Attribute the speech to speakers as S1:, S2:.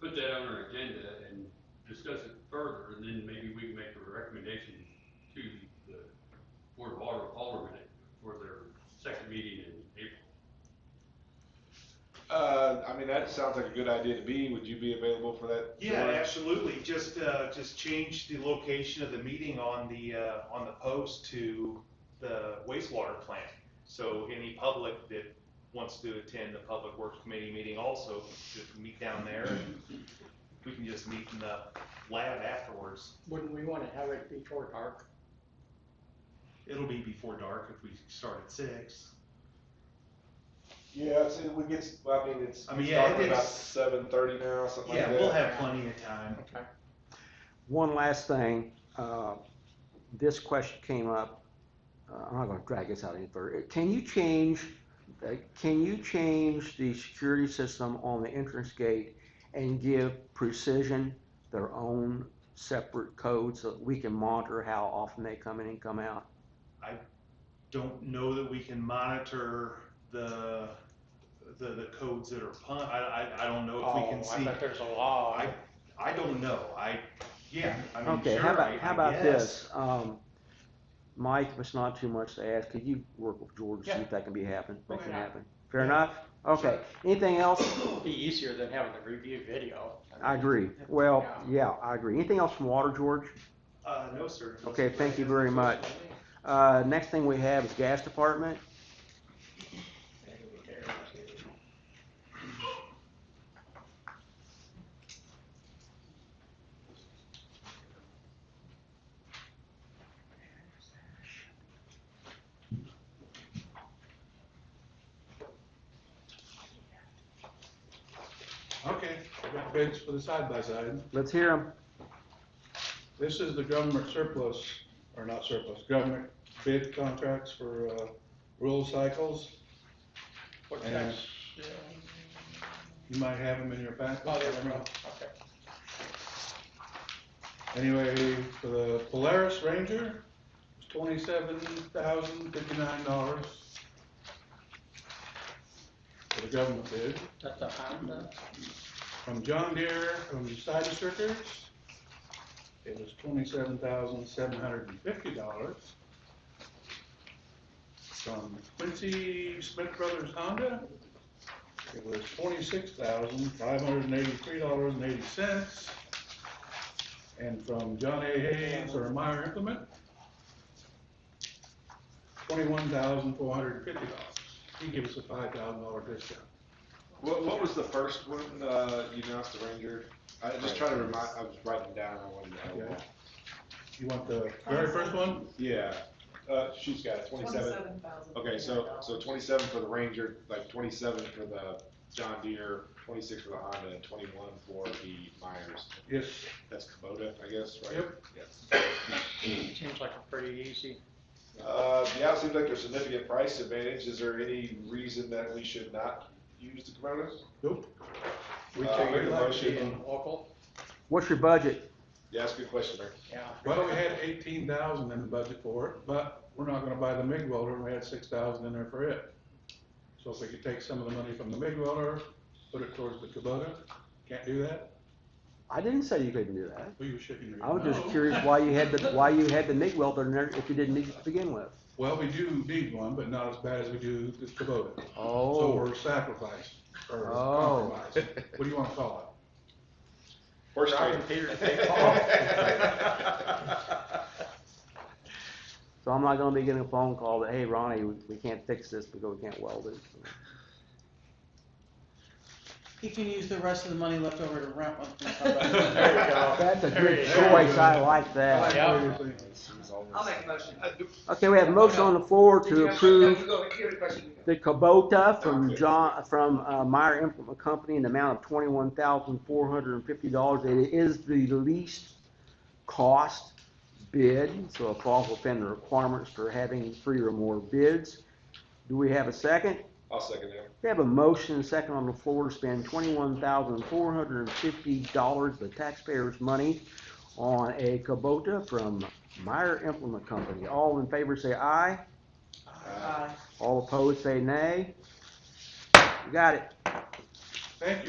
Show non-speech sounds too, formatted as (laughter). S1: that on our agenda and discuss it further, and then maybe we can make a recommendation to the Board of Alder- Aldermen for their second meeting in April.
S2: Uh, I mean, that sounds like a good idea to me. Would you be available for that?
S3: Yeah,
S2: George?
S3: absolutely. Just, uh, just change the location of the meeting on the, uh, on the post to the wastewater plant. So any public that wants to attend the Public Works Committee meeting also, just meet down there. We can just meet in the lab afterwards.
S4: Wouldn't we wanna have it before dark?
S3: It'll be before dark if we start at six.
S2: Yeah, it's, it, we get, well, I mean, it's,
S3: I mean,
S2: it's
S3: yeah,
S2: dark
S3: it
S2: about
S3: is-
S2: seven thirty now, something like
S3: Yeah,
S2: that.
S3: we'll have plenty of time.
S4: Okay.
S5: One last thing, uh, this question came up, uh, I'm not gonna drag this out any further. Can you change, uh, can you change the security system on the entrance gate and give Precision their own separate code so that we can monitor how often they come in and come out?
S3: don't know that we can monitor the, the, the codes that are pun, I, I, I don't know if we can
S4: Oh, I
S3: see.
S4: bet there's a law.
S3: I, I don't know, I, yeah, I mean,
S5: Okay, how
S3: sure, I,
S5: about, how
S3: I
S5: about
S3: guess.
S5: this? Um, Mike, if it's not too much to ask, could you work with George, see if that can be happen, make
S4: Okay.
S5: it happen? Fair enough? Okay, anything else?
S4: It'd Be easier than having to review video.
S5: I agree. Well, yeah, I agree. Anything else from water, George?
S3: Uh, no, sir.
S5: Okay, thank you very much. Uh, next thing we have is gas department.
S6: Okay, I've got bids for the side by side.
S5: Let's hear them.
S6: This is the government surplus, or not surplus, government bid contracts for, uh, rural cycles.
S4: What
S6: And-
S4: that's, yeah,
S6: You might have them in your packet.
S4: oh, there's no, okay.
S6: Anyway, for the Polaris Ranger, it's twenty-seven thousand fifty-nine dollars. For the government bid,
S4: That's a Honda,
S6: from John Deere, from Side Circuits, it was twenty-seven thousand seven hundred and fifty dollars. From Quincy Smith Brothers Honda, it was twenty-six thousand five hundred and eighty-three dollars and eighty cents. And from John A. Hayes or Meyer Implement, twenty-one thousand four hundred and fifty dollars. He gives us a five thousand dollar discount.
S2: What, what was the first one, uh, you announced the Ranger? I was just trying to remind, I was writing down, I wanted to know.
S6: Okay. You want the very first one?
S2: Yeah, uh, she's got it, twenty-seven.
S7: Twenty-seven thousand.
S2: Okay, so, so twenty-seven for the Ranger, like twenty-seven for the John Deere, twenty-six for the Honda, and twenty-one for the Myers.
S6: Yes.
S2: That's Kubota, I guess, right?
S6: Yep.
S2: Yes.
S4: seems like a pretty easy,
S2: Uh, yeah, it seems like there's significant price advantage. Is there any reason that we should not use the Coronas?
S6: Nope.
S2: We
S6: Uh,
S2: take a
S6: we'd like to
S2: motion.
S6: be in-
S4: local,
S5: What's your budget?
S2: Yeah, that's a good question, Mayor.
S4: yeah.
S6: Well, we had eighteen thousand in the budget for it, but we're not gonna buy the MIG welder, and we had six thousand in there for it. So if we could take some of the money from the MIG welder, put it towards the Kubota, can't do that,
S5: I didn't say you couldn't do that.
S6: well, you should. you
S5: I was just
S6: know.
S5: curious why you had the, why you had the MIG welder in there if you didn't need it to begin with.
S6: Well, we do need one, but not as bad as we do the Kubota. So
S5: Oh,
S6: we're sacrificed,
S5: Oh.
S6: or compromised, what do you wanna call
S2: Horse
S4: Robin
S2: trading. (laughs)
S4: Peter, take
S5: so I'm not gonna be getting a phone call that, hey, Ronnie, we we can't fix this because we can't weld it.
S8: He can use the rest of the money left over to rent one from somebody.
S4: There we go.
S5: That's a
S4: There you
S5: good
S4: go.
S5: choice. I like
S6: it?
S5: that.
S4: (laughs) Yeah.
S7: I'll make a motion.
S5: Okay, we have a motion on the floor
S7: Did you
S5: to
S7: have-
S5: approve
S7: no, you go, you have a question.
S5: the Kubota from
S2: Okay.
S5: John, from uh, Meyer Implement Company in the amount of twenty-one thousand four hundred and fifty dollars. It is the least cost bid, so it falls within the requirements for having three or more bids. Do we have a second?
S2: I'll second that.
S5: We have a motion and second on the floor to spend twenty-one thousand four hundred and fifty dollars of the taxpayers' money on a Kubota from Meyer Implement Company. All in favor say aye.
S8: Aye. uh,
S5: All opposed, say nay. You got it.
S6: Thank you.